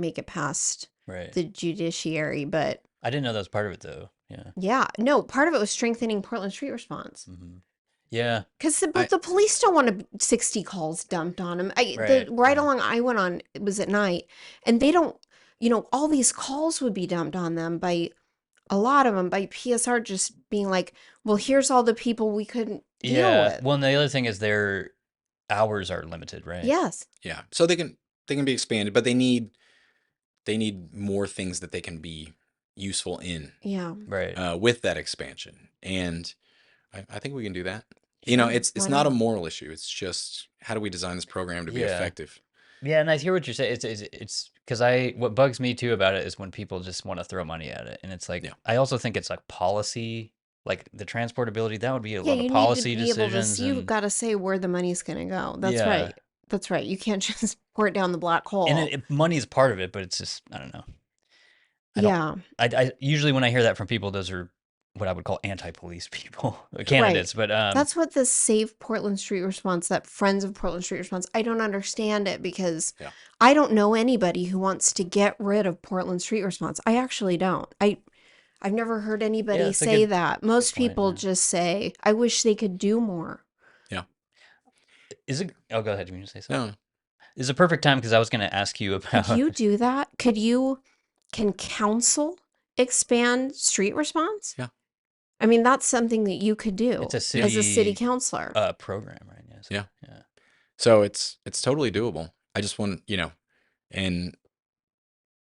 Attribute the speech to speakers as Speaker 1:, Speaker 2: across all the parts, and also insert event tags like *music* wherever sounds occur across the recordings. Speaker 1: make it past
Speaker 2: Right.
Speaker 1: the judiciary, but
Speaker 2: I didn't know that was part of it though. Yeah.
Speaker 1: yeah, no, part of it was strengthening Portland street response
Speaker 2: hmm Yeah.
Speaker 1: because the,
Speaker 2: I-
Speaker 1: the police don't want to 60 calls dumped on them. I,
Speaker 2: Right,
Speaker 1: the ride
Speaker 2: yeah.
Speaker 1: along I went on it was at night, and they don't, you know, all these calls would be dumped on them by a lot of them by PSR just being like, well, here's all the people we couldn't deal
Speaker 2: Yeah.
Speaker 1: with.
Speaker 2: Well, and the other thing is their hours are limited, right?
Speaker 1: Yes.
Speaker 3: Yeah. So they can they can be expanded, but they need they need more things that they can be useful in
Speaker 1: Yeah.
Speaker 2: Right.
Speaker 3: uh, with that expansion, and I, I think we can do that. You know,
Speaker 1: Sure,
Speaker 3: it's it's
Speaker 1: why
Speaker 3: not a
Speaker 1: not?
Speaker 3: moral issue. It's just how do we design this program to be
Speaker 2: Yeah.
Speaker 3: effective?
Speaker 2: yeah, and I hear what you're saying. It's it's it's because I what bugs me too about it is when people just want to throw money at it, and it's like
Speaker 3: Yeah.
Speaker 2: I also think it's like policy, like the transportability. That would be a
Speaker 1: yeah,
Speaker 2: lot
Speaker 1: you
Speaker 2: of policy
Speaker 1: need to be able to
Speaker 2: decisions.
Speaker 1: see, you've
Speaker 2: and-
Speaker 1: got to say where the money's going to go. That's
Speaker 2: Yeah.
Speaker 1: right. That's right. You can't *laughs* just pour it down the black hole.
Speaker 2: and it, it- money is part of it, but it's just I don't know. I don't-
Speaker 1: yeah.
Speaker 2: I, I usually when I hear that from people, those are what I would call anti-police *laughs* people candidates. But um,
Speaker 1: That's what the Save Portland Street response, that Friends of Portland Street response, I don't understand it because
Speaker 3: Yeah.
Speaker 1: I don't know anybody who wants to get rid of Portland Street response. I actually don't. I I've never heard anybody
Speaker 2: that's a
Speaker 1: say
Speaker 2: good-
Speaker 1: that. Most
Speaker 2: point,
Speaker 1: people
Speaker 2: yeah.
Speaker 1: just say, I wish they could do more.
Speaker 2: is it? Oh, go ahead. You want to say something?
Speaker 3: No,
Speaker 2: It's a perfect time because I was going to ask you *laughs*
Speaker 1: Could
Speaker 2: about.
Speaker 1: you do that? Could you can council expand street response?
Speaker 3: Yeah.
Speaker 1: I mean, that's something that you could do
Speaker 2: It's a
Speaker 1: as a
Speaker 2: city,
Speaker 1: city councilor.
Speaker 2: uh, program, right? Yes.
Speaker 3: Yeah.
Speaker 2: Yeah.
Speaker 3: so it's it's totally doable. I just want you know, and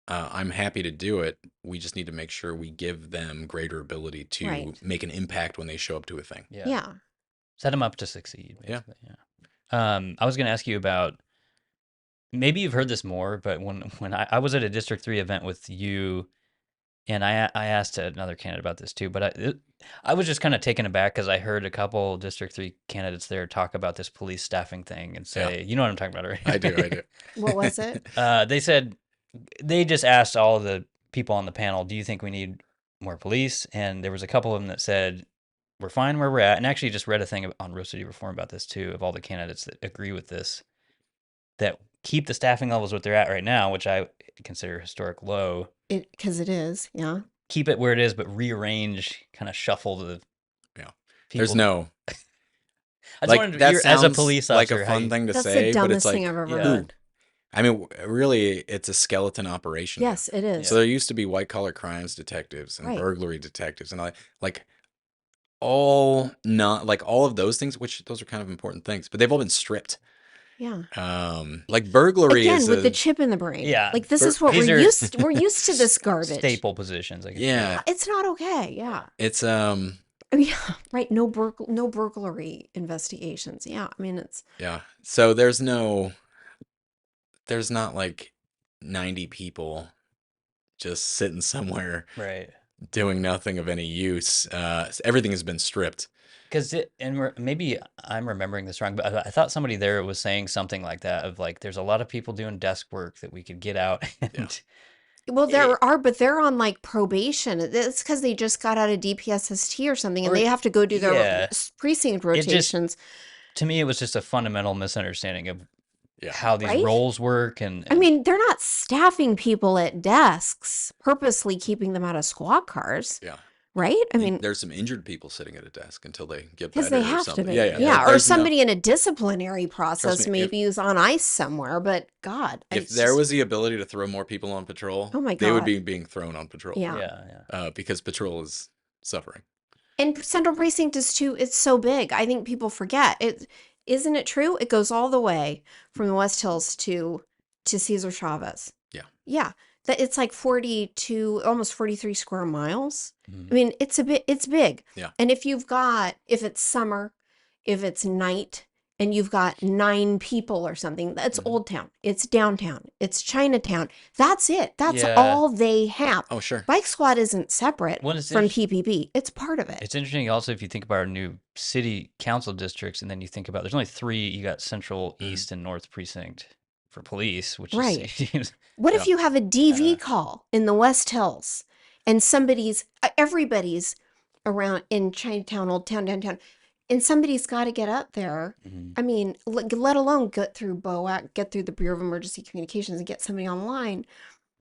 Speaker 3: uh, I'm happy to do it. We just need to make sure we give them greater ability to
Speaker 1: Right.
Speaker 3: make an impact when they show up to
Speaker 1: *laughs*
Speaker 3: a thing.
Speaker 2: Yeah.
Speaker 1: yeah.
Speaker 2: Set them up to succeed.
Speaker 3: Yeah.
Speaker 2: Basically. Yeah. Um, I was going to ask you about. Maybe you've heard this more, but when when I, I was at a District Three event with you, and I I asked another candidate about this too, but I it, I was just kind of taken aback because I heard a couple District Three candidates there talk about this police staffing thing and say, you know what I'm talking about, right?
Speaker 3: I do, I do.
Speaker 1: What
Speaker 2: *laughs*
Speaker 1: was it?
Speaker 2: Uh, they said they just asked all the people on the panel, "Do you think we need more police?" And there was a couple of them that said, "We're fine where we're at." And I actually, just read a thing on Real City Reform about this too, of all the candidates that agree with this, that keep the staffing levels what they're at right now, which I consider historic low.
Speaker 1: It because it is, yeah.
Speaker 2: Keep it where it is, but rearrange, kind of shuffle the.
Speaker 3: Yeah.
Speaker 2: People.
Speaker 3: *laughs* There's no
Speaker 2: I just
Speaker 3: like,
Speaker 2: wanted to
Speaker 3: that
Speaker 2: hear as a
Speaker 3: sounds
Speaker 2: police
Speaker 3: like
Speaker 2: officer,
Speaker 3: a
Speaker 2: how
Speaker 3: fun
Speaker 2: you-
Speaker 3: thing to
Speaker 1: That's
Speaker 3: say,
Speaker 1: the
Speaker 3: but it's
Speaker 1: dumbest
Speaker 3: like
Speaker 1: thing I've ever
Speaker 2: yeah.
Speaker 1: heard.
Speaker 3: I mean, w- really, it's a skeleton operation. now.
Speaker 1: Yes, it is.
Speaker 3: So there used to be white collar crimes detectives and
Speaker 1: Right.
Speaker 3: burglary detectives and like like all not like all of those things, which those are kind of important things, but they've all been stripped.
Speaker 1: Yeah.
Speaker 3: Um, like burglary
Speaker 1: Again,
Speaker 3: is
Speaker 1: with
Speaker 3: a,
Speaker 1: the chip in the brain.
Speaker 2: Yeah,
Speaker 1: Like this
Speaker 3: bur-
Speaker 1: is what
Speaker 2: these
Speaker 1: we're
Speaker 2: are
Speaker 1: used.
Speaker 2: *laughs*
Speaker 1: We're used to this garbage.
Speaker 2: staple positions. I guess.
Speaker 3: yeah,
Speaker 1: It's not okay. Yeah.
Speaker 3: *laughs* it's um,
Speaker 1: I mean, *laughs* Yeah. Right. No burgl- no burglary investigations. Yeah. I mean, it's
Speaker 3: yeah. So there's no, there's not like ninety people just sitting somewhere
Speaker 2: Right.
Speaker 3: doing nothing of any use. Uh, s- everything has been stripped.
Speaker 2: Because it, and re- maybe I'm remembering this wrong, but I, I thought somebody there was saying something like that of like, there's a lot of people doing desk work that we could get out. *laughs* And
Speaker 1: well, there
Speaker 3: It-
Speaker 1: are, but they're on like probation. It's because they just got out of DPSST or something, and
Speaker 2: Or-
Speaker 1: they have to go do their
Speaker 2: yeah.
Speaker 1: s- precinct
Speaker 2: It just-
Speaker 1: rotations.
Speaker 2: to me, it was just a fundamental misunderstanding of
Speaker 3: Yeah.
Speaker 2: how these
Speaker 1: Right?
Speaker 2: roles work. And,
Speaker 1: I
Speaker 2: and-
Speaker 1: mean, they're not staffing people at desks, purposely keeping them out of squad cars,
Speaker 3: Yeah.
Speaker 1: right? I
Speaker 3: I
Speaker 1: mean,
Speaker 3: mean, there's some injured people sitting at a desk until they get better
Speaker 1: because they
Speaker 3: or
Speaker 1: have to
Speaker 3: something.
Speaker 1: be
Speaker 3: Yeah,
Speaker 1: yeah,
Speaker 3: yeah. there-
Speaker 1: or
Speaker 3: there's no-
Speaker 1: somebody in a disciplinary process
Speaker 3: me, if-
Speaker 1: maybe who's on ice somewhere but god I-
Speaker 3: if
Speaker 1: it's
Speaker 3: there
Speaker 1: just-
Speaker 3: was the ability to throw more people on patrol,
Speaker 1: Oh my
Speaker 3: they would
Speaker 1: God.
Speaker 3: be being thrown on patrol.
Speaker 1: Yeah.
Speaker 2: yeah, yeah.
Speaker 3: Uh, because patrol is suffering.
Speaker 1: and central precinct is too it's so big i think people forget it isn't it true it goes all the way from the west hills to to cesar chavez
Speaker 3: Yeah.
Speaker 1: yeah that it's like 42 almost 43 square miles
Speaker 2: Mhm.
Speaker 1: I mean, it's a bit, it's big.
Speaker 3: Yeah.
Speaker 1: And if you've got, if it's summer, if it's night, and you've got nine people or something, that's
Speaker 3: Mhm.
Speaker 1: Old Town, it's downtown, it's Chinatown. That's it. That's
Speaker 2: Yeah.
Speaker 1: all they have.
Speaker 3: Oh, sure.
Speaker 1: Bike Squad isn't separate
Speaker 2: Well, it's
Speaker 1: from
Speaker 2: inter-
Speaker 1: PPB. It's part of it.
Speaker 2: It's interesting also if you think about our new city council districts and then you think about there's only three, you got central,
Speaker 3: Mhm.
Speaker 2: east, and north precinct for police, which
Speaker 1: Right.
Speaker 2: is *laughs*
Speaker 1: What if
Speaker 3: Yeah.
Speaker 1: you have a DV
Speaker 2: Yeah.
Speaker 1: call in the West Hills and somebody's, uh, everybody's around in Chinatown, Old Town, downtown, and somebody's got to get up there
Speaker 2: Mhm.
Speaker 1: I mean, let, let alone get through BOAC, get through the Bureau of Emergency Communications, and get somebody online.